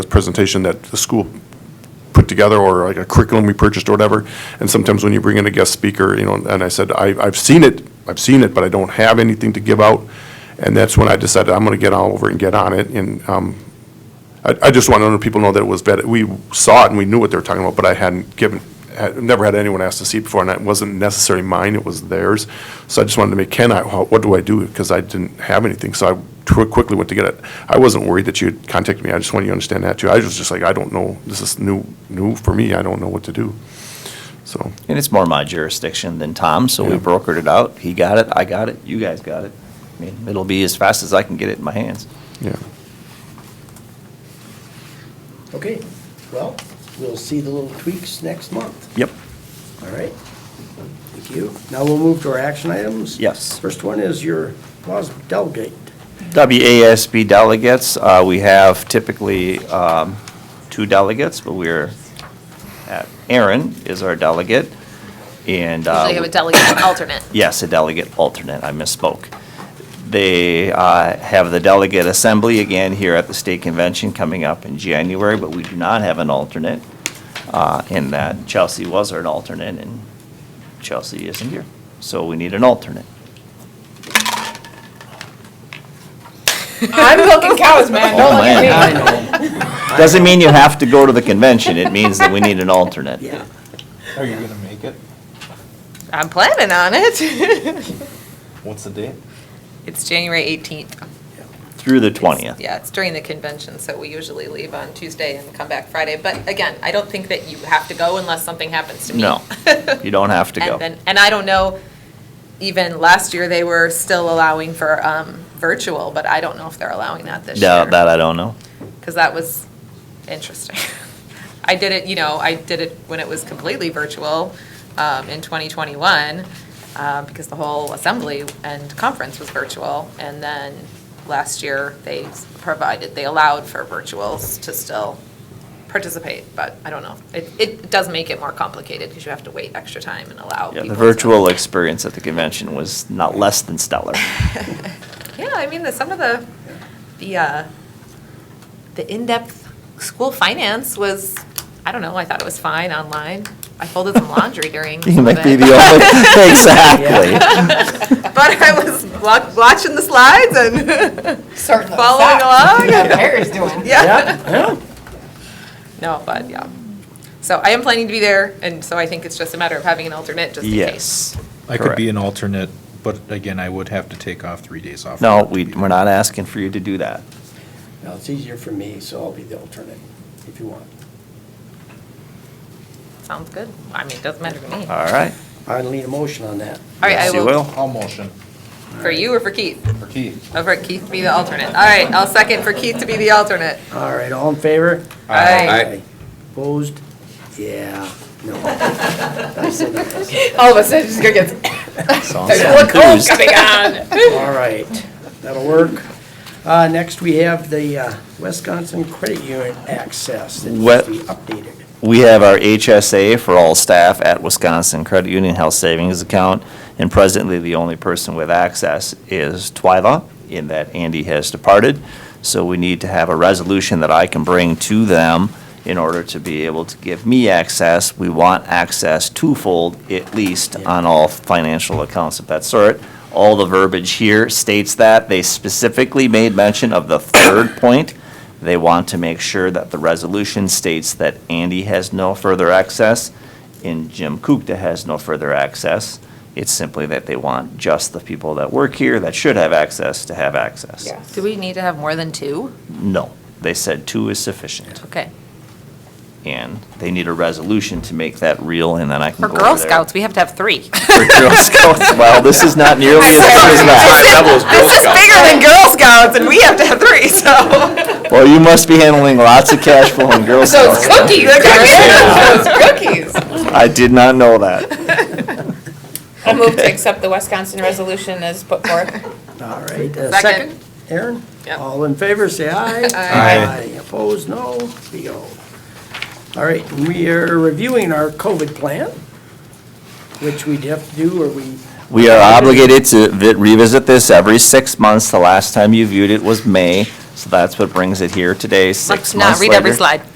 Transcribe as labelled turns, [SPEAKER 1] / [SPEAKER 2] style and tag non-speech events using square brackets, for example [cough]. [SPEAKER 1] presentation that the school put together, or like a curriculum we purchased or whatever, and sometimes when you bring in a guest speaker, you know, and I said, I, I've seen it, I've seen it, but I don't have anything to give out, and that's when I decided I'm gonna get all over and get on it, and, um, I, I just want other people to know that it was vetted, we saw it and we knew what they were talking about, but I hadn't given, had, never had anyone ask to see it before, and it wasn't necessarily mine, it was theirs, so I just wanted to make, can I, how- what do I do, because I didn't have anything, so I tw- quickly went to get it. I wasn't worried that you'd contact me, I just wanted you to understand that too, I was just like, I don't know, this is new, new for me, I don't know what to do, so.
[SPEAKER 2] And it's more my jurisdiction than Tom's, so we
[SPEAKER 1] Yeah.
[SPEAKER 2] brokered it out. He got it, I got it, you guys got it. I mean, it'll be as fast as I can get it in my hands.
[SPEAKER 1] Yeah.
[SPEAKER 3] Okay, well, we'll see the little tweaks next month,
[SPEAKER 2] Yep.
[SPEAKER 3] all right? Thank you. Now we'll move to our action items.
[SPEAKER 2] Yes.
[SPEAKER 3] First one is your WAS delegate.
[SPEAKER 2] WASB delegates, uh, we have typically, um, two delegates, but we're, at- Aaron is our delegate, and. uh,
[SPEAKER 4] Usually have a delegate
[SPEAKER 5] [coughs]
[SPEAKER 4] and alternate.
[SPEAKER 2] Yes, a delegate alternate, I misspoke. They uh, have the delegate assembly again here at the state convention coming up in January, but we do not have an alternate uh, in that Chelsea was our alternate and Chelsea isn't here. So we need an alternate.
[SPEAKER 5] I'm milking cows, man. Don't
[SPEAKER 2] Oh,
[SPEAKER 5] look at
[SPEAKER 2] man.
[SPEAKER 5] me.
[SPEAKER 2] Doesn't mean you have to go to the convention, it means that we need an alternate.
[SPEAKER 3] Yeah.
[SPEAKER 6] Are you gonna make it?
[SPEAKER 5] I'm planning on it. [laughs]
[SPEAKER 6] What's the date?
[SPEAKER 5] it's January 18th.
[SPEAKER 2] Through the 20th.
[SPEAKER 5] Yeah, it's during the convention, so we usually leave on Tuesday and come back Friday. But again, I don't think that you have to go unless something happens to me. [laughs]
[SPEAKER 2] No, you don't have to go.
[SPEAKER 5] And then, and I don't know, even last year, they were still allowing for um, virtual, but I don't know if they're allowing that this
[SPEAKER 2] Yeah,
[SPEAKER 5] year.
[SPEAKER 2] That I don't know.
[SPEAKER 5] because that was interesting. [laughs] I did it, you know, I did it when it was completely virtual um, in 2021, uh, because the whole assembly and conference was virtual. And then last year, they provided, they allowed for virtuals to still participate, but I don't know. It, it does make it more complicated, because you have to wait extra time and allow
[SPEAKER 2] Yeah,
[SPEAKER 5] people.
[SPEAKER 2] The
[SPEAKER 5] to-
[SPEAKER 2] virtual experience at the convention was not less than stellar.
[SPEAKER 5] Yeah, I mean, the, some of the, the, uh, the in-depth school finance was, I don't know, I thought it was fine online. I folded some laundry during
[SPEAKER 2] [laughs] You
[SPEAKER 5] some of
[SPEAKER 2] might be
[SPEAKER 5] it.
[SPEAKER 2] the
[SPEAKER 5] [laughs]
[SPEAKER 2] only, exactly.
[SPEAKER 5] But I was wa- watching the slides and
[SPEAKER 7] Certainly.
[SPEAKER 5] following along.
[SPEAKER 7] Mary's doing.
[SPEAKER 5] Yeah.
[SPEAKER 3] Yeah.
[SPEAKER 5] No, but yeah. So I am planning to be there, and so I think it's just a matter of having an alternate just in case.
[SPEAKER 2] Yes.
[SPEAKER 6] I could
[SPEAKER 2] Correct.
[SPEAKER 6] be an alternate, but again, I would have to take off three days off.
[SPEAKER 2] No, we, we're not asking for you to do that.
[SPEAKER 3] Now, it's easier for me, so I'll be the alternate if you want.
[SPEAKER 5] Sounds good. I mean, it doesn't matter to me. All
[SPEAKER 2] All right.
[SPEAKER 3] I need a motion on that.
[SPEAKER 5] right, I
[SPEAKER 2] Yes, you
[SPEAKER 5] will,
[SPEAKER 6] I'll motion
[SPEAKER 5] for you or for Keith?
[SPEAKER 6] for Keith.
[SPEAKER 5] Over at Oh, Keith to be the alternate. All right, I'll second for Keith to be the alternate.
[SPEAKER 3] All right, all in favor?
[SPEAKER 5] Aye.
[SPEAKER 3] Opposed? Yeah, no. I said yes.
[SPEAKER 5] All of a sudden, she's gonna get. [laughs]
[SPEAKER 2] Sounds
[SPEAKER 5] Look,
[SPEAKER 2] enthused.
[SPEAKER 5] homecoming on.
[SPEAKER 3] All right, that'll work. Uh, Next, we have the uh, Wisconsin Credit Union Access that needs
[SPEAKER 2] What-
[SPEAKER 3] to be updated.
[SPEAKER 2] We have our HSA for all staff at Wisconsin Credit Union Health Savings Account, and presently, the only person with access is Twyla, in that Andy has departed. So we need to have a resolution that I can bring to them in order to be able to give me access. We want access twofold, at least, on all financial accounts of that sort. All the verbiage here states that. They specifically made mention of the third [coughs] point, they want to make sure that the resolution states that Andy has no further access and Jim Kukta has no further access. It's simply that they want just the people that work here that should have access to have access.
[SPEAKER 5] [laughs] Do we need to have more than two?
[SPEAKER 2] No, they said two is sufficient.
[SPEAKER 5] Okay.
[SPEAKER 2] And they need a resolution to make that real and then I can
[SPEAKER 5] For
[SPEAKER 2] go over
[SPEAKER 5] Girl
[SPEAKER 2] there.
[SPEAKER 5] Scouts, we have to have three.
[SPEAKER 2] For
[SPEAKER 5] [laughs]
[SPEAKER 2] Girl Scouts, well, this is not nearly as big as that.
[SPEAKER 5] This is bigger than Girl Scouts, and we have to have three, so.
[SPEAKER 2] Well, you must be handling lots of cash flow in Girl
[SPEAKER 5] [laughs] So
[SPEAKER 2] Scouts.
[SPEAKER 5] it's
[SPEAKER 2] [laughs]
[SPEAKER 5] cookies. It's cookies.
[SPEAKER 2] I did not know that.
[SPEAKER 7] I'll move to accept the Wisconsin resolution as put forth.
[SPEAKER 3] All right, uh,
[SPEAKER 5] Second.
[SPEAKER 3] second, Aaron?
[SPEAKER 5] Yep.
[SPEAKER 3] All in favor, say [laughs] aye.
[SPEAKER 6] Aye.
[SPEAKER 3] Opposed, no, we go. All right, we are reviewing our COVID plan, which we have to do, or we,
[SPEAKER 2] We are obligated to vi- revisit this every six months. The last time you viewed it was May.
[SPEAKER 5] So that's what brings it here today, six
[SPEAKER 2] Let's
[SPEAKER 5] months
[SPEAKER 2] not read every
[SPEAKER 5] later.
[SPEAKER 2] slide.